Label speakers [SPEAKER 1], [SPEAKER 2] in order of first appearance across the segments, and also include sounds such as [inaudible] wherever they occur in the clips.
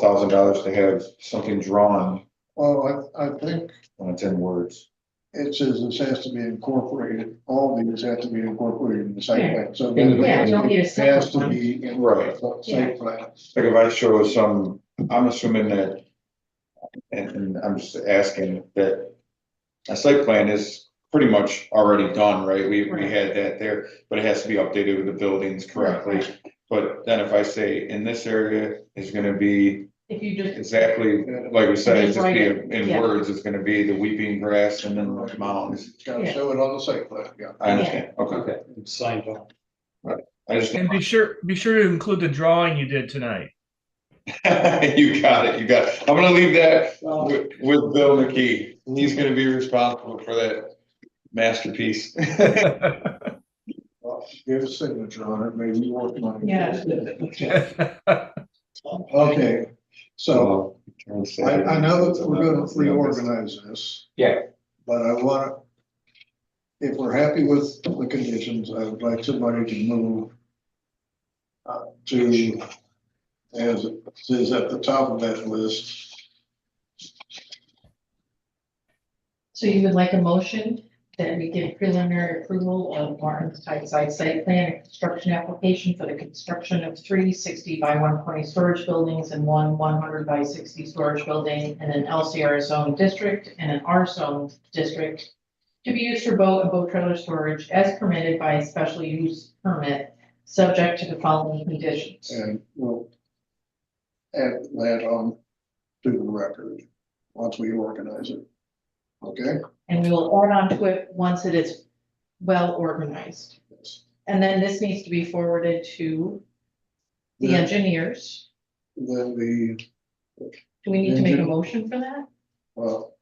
[SPEAKER 1] thousand dollars to have something drawn
[SPEAKER 2] Well, I, I think
[SPEAKER 1] on ten words.
[SPEAKER 2] it says this has to be incorporated, all these have to be incorporated in the site plan, so.
[SPEAKER 1] Yeah. Yeah,
[SPEAKER 3] you don't need a
[SPEAKER 2] It Has to
[SPEAKER 3] separate
[SPEAKER 2] be in
[SPEAKER 1] Right.
[SPEAKER 2] the site plan.
[SPEAKER 1] Like if I show some, I'm assuming that. And, and I'm just asking that. A site plan is pretty much already done, right? We, we
[SPEAKER 3] Right.
[SPEAKER 1] had that there, but it has to be updated with the buildings correctly.
[SPEAKER 3] Right.
[SPEAKER 1] But then if I say in this area is gonna be
[SPEAKER 3] If you just,
[SPEAKER 1] exactly, like we said, it's just be
[SPEAKER 3] Rewrite it,
[SPEAKER 1] in
[SPEAKER 3] yeah.
[SPEAKER 1] words, it's gonna be the weeping grass and then the mountains.
[SPEAKER 2] It's gotta show it on the site plan, yeah.
[SPEAKER 1] I understand, okay,
[SPEAKER 4] Signed up.
[SPEAKER 1] I just.
[SPEAKER 5] And be sure, be sure to include the drawing you did tonight. [laughs]
[SPEAKER 1] [laughs] You got it, you got it. I'm gonna leave that with, with Bill McKee. He's gonna be responsible for that masterpiece.
[SPEAKER 2] Well, Give a signature on it, maybe you work on it.
[SPEAKER 3] Yeah.
[SPEAKER 2] Okay, [laughs] so I, I know that we're gonna reorganize this.
[SPEAKER 4] Yeah.
[SPEAKER 2] But I wanna, if we're happy with the conditions, I would like somebody to move uh, to, as it says at the top of that list,
[SPEAKER 3] so you would like a motion that we give preliminary approval of Martin's Tide Site Plan and Construction Application for the construction of three sixty by one twenty storage buildings and one one hundred by sixty storage building and an LCR zone district and an R zone district to be used for boat and boat trailer storage as permitted by a special use permit, subject to the following conditions.
[SPEAKER 2] and we'll add that on to the record, once we organize it. Okay?
[SPEAKER 3] And we will add on to it once it is well organized. And then this needs to be forwarded to the
[SPEAKER 2] Then
[SPEAKER 3] engineers.
[SPEAKER 2] then the,
[SPEAKER 3] Do we need to make a
[SPEAKER 2] Engineer.
[SPEAKER 3] motion for that?
[SPEAKER 2] well,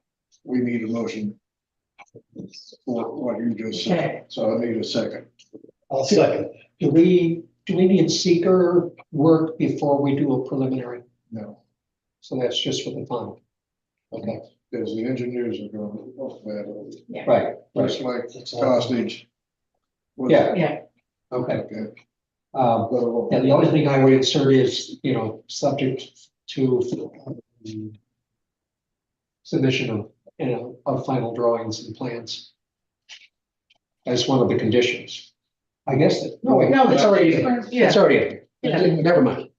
[SPEAKER 2] we need a motion for what you just
[SPEAKER 3] Okay.
[SPEAKER 2] said, so I need a second.
[SPEAKER 6] I'll second. Do we, do we need seeker work before we do a preliminary?
[SPEAKER 2] No,
[SPEAKER 6] So that's just for the final. Okay,
[SPEAKER 2] because the engineers are going to look that over,
[SPEAKER 6] right,
[SPEAKER 2] just
[SPEAKER 6] right.
[SPEAKER 2] like
[SPEAKER 6] That's all.
[SPEAKER 2] hostage. was-
[SPEAKER 6] Yeah.
[SPEAKER 3] Yeah.
[SPEAKER 6] Okay.
[SPEAKER 2] Okay.
[SPEAKER 6] Um,
[SPEAKER 2] Well,
[SPEAKER 6] and the only thing I would insert is, you know, subject to um, submission of, you know, of final drawings and plans. As one of the conditions. I guess, that- no, wait,
[SPEAKER 3] No,
[SPEAKER 6] it's
[SPEAKER 3] that's-
[SPEAKER 6] already, in.
[SPEAKER 3] Yeah.
[SPEAKER 6] it's already,
[SPEAKER 3] Yeah.
[SPEAKER 6] in. never mind.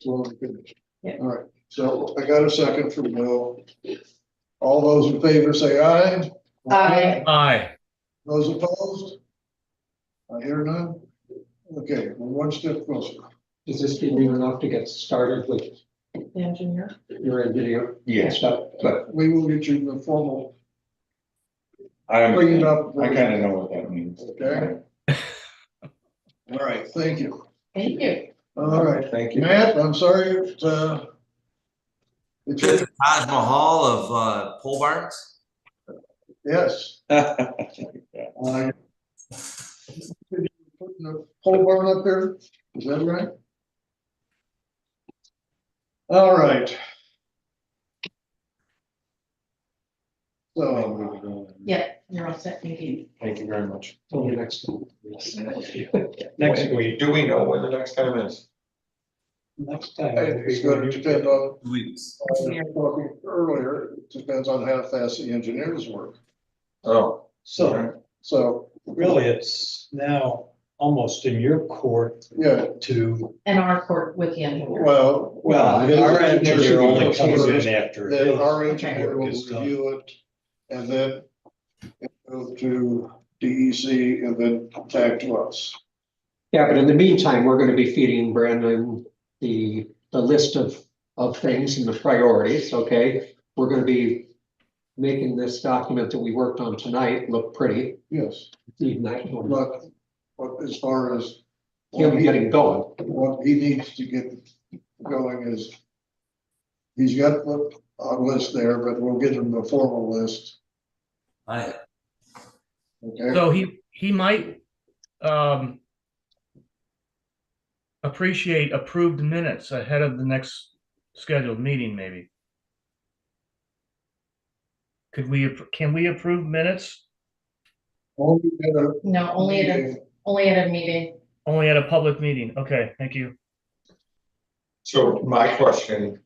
[SPEAKER 2] it's already finished.
[SPEAKER 3] Yeah.
[SPEAKER 2] All right, so I got a second for Bill. All those in favor say aye.
[SPEAKER 3] Aye.
[SPEAKER 5] Aye.
[SPEAKER 2] Those opposed? I hear none. Okay, we're one step closer.
[SPEAKER 6] Does this give you enough to get started with
[SPEAKER 3] The engineer?
[SPEAKER 6] your engineer and
[SPEAKER 1] Yes,
[SPEAKER 6] stuff?
[SPEAKER 1] but
[SPEAKER 2] We will get you the formal,
[SPEAKER 1] I,
[SPEAKER 2] bring it
[SPEAKER 1] I
[SPEAKER 2] up.
[SPEAKER 1] kinda know what that means.
[SPEAKER 2] Okay. All right, thank you.
[SPEAKER 3] Thank you.
[SPEAKER 2] All right,
[SPEAKER 1] Thank you. [laughs]
[SPEAKER 2] Matt, I'm sorry, it's, uh, it's,
[SPEAKER 7] This is Taj Mahal of uh, pole barns.
[SPEAKER 2] yes,
[SPEAKER 1] Yeah,
[SPEAKER 2] I. Did you put the pole barn up there, is that right? All right. So,
[SPEAKER 3] Yeah, you're all set. Thank you.
[SPEAKER 1] Thank you very much.
[SPEAKER 6] Till the next one.
[SPEAKER 4] Next week.
[SPEAKER 1] Do we know when the next time is?
[SPEAKER 6] Next time.
[SPEAKER 2] it's gonna depend on
[SPEAKER 7] Weeks.
[SPEAKER 2] I was talking earlier, it depends on how fast the engineers work.
[SPEAKER 1] Oh.
[SPEAKER 4] So
[SPEAKER 2] So,
[SPEAKER 4] really, it's now almost in your court
[SPEAKER 2] yeah,
[SPEAKER 4] to.
[SPEAKER 3] And our court with the engineer.
[SPEAKER 2] well.
[SPEAKER 4] Our engineer only comes in after.
[SPEAKER 2] Then
[SPEAKER 4] his
[SPEAKER 2] our engineer
[SPEAKER 4] work
[SPEAKER 2] will
[SPEAKER 4] is done.
[SPEAKER 2] review it and then it goes to DEC and then back to us.
[SPEAKER 6] Yeah, but in the meantime, we're gonna be feeding Brandon the, the list of, of things and the priorities, okay? We're gonna be making this document that we worked on tonight look pretty,
[SPEAKER 2] Yes,
[SPEAKER 6] even that one,
[SPEAKER 2] but, but as far as
[SPEAKER 6] him getting going.
[SPEAKER 2] what he needs to get going is. He's got what- a list there, but we'll get him the formal list,
[SPEAKER 7] Hi.
[SPEAKER 2] okay?
[SPEAKER 5] So he, he might, um, appreciate approved minutes ahead of the next scheduled meeting, maybe. Could we, appro- can we approve minutes
[SPEAKER 2] Only at a
[SPEAKER 3] No, only at a,
[SPEAKER 2] meeting
[SPEAKER 3] only at a meeting.
[SPEAKER 5] only at a public meeting? Okay, thank you.
[SPEAKER 1] So my question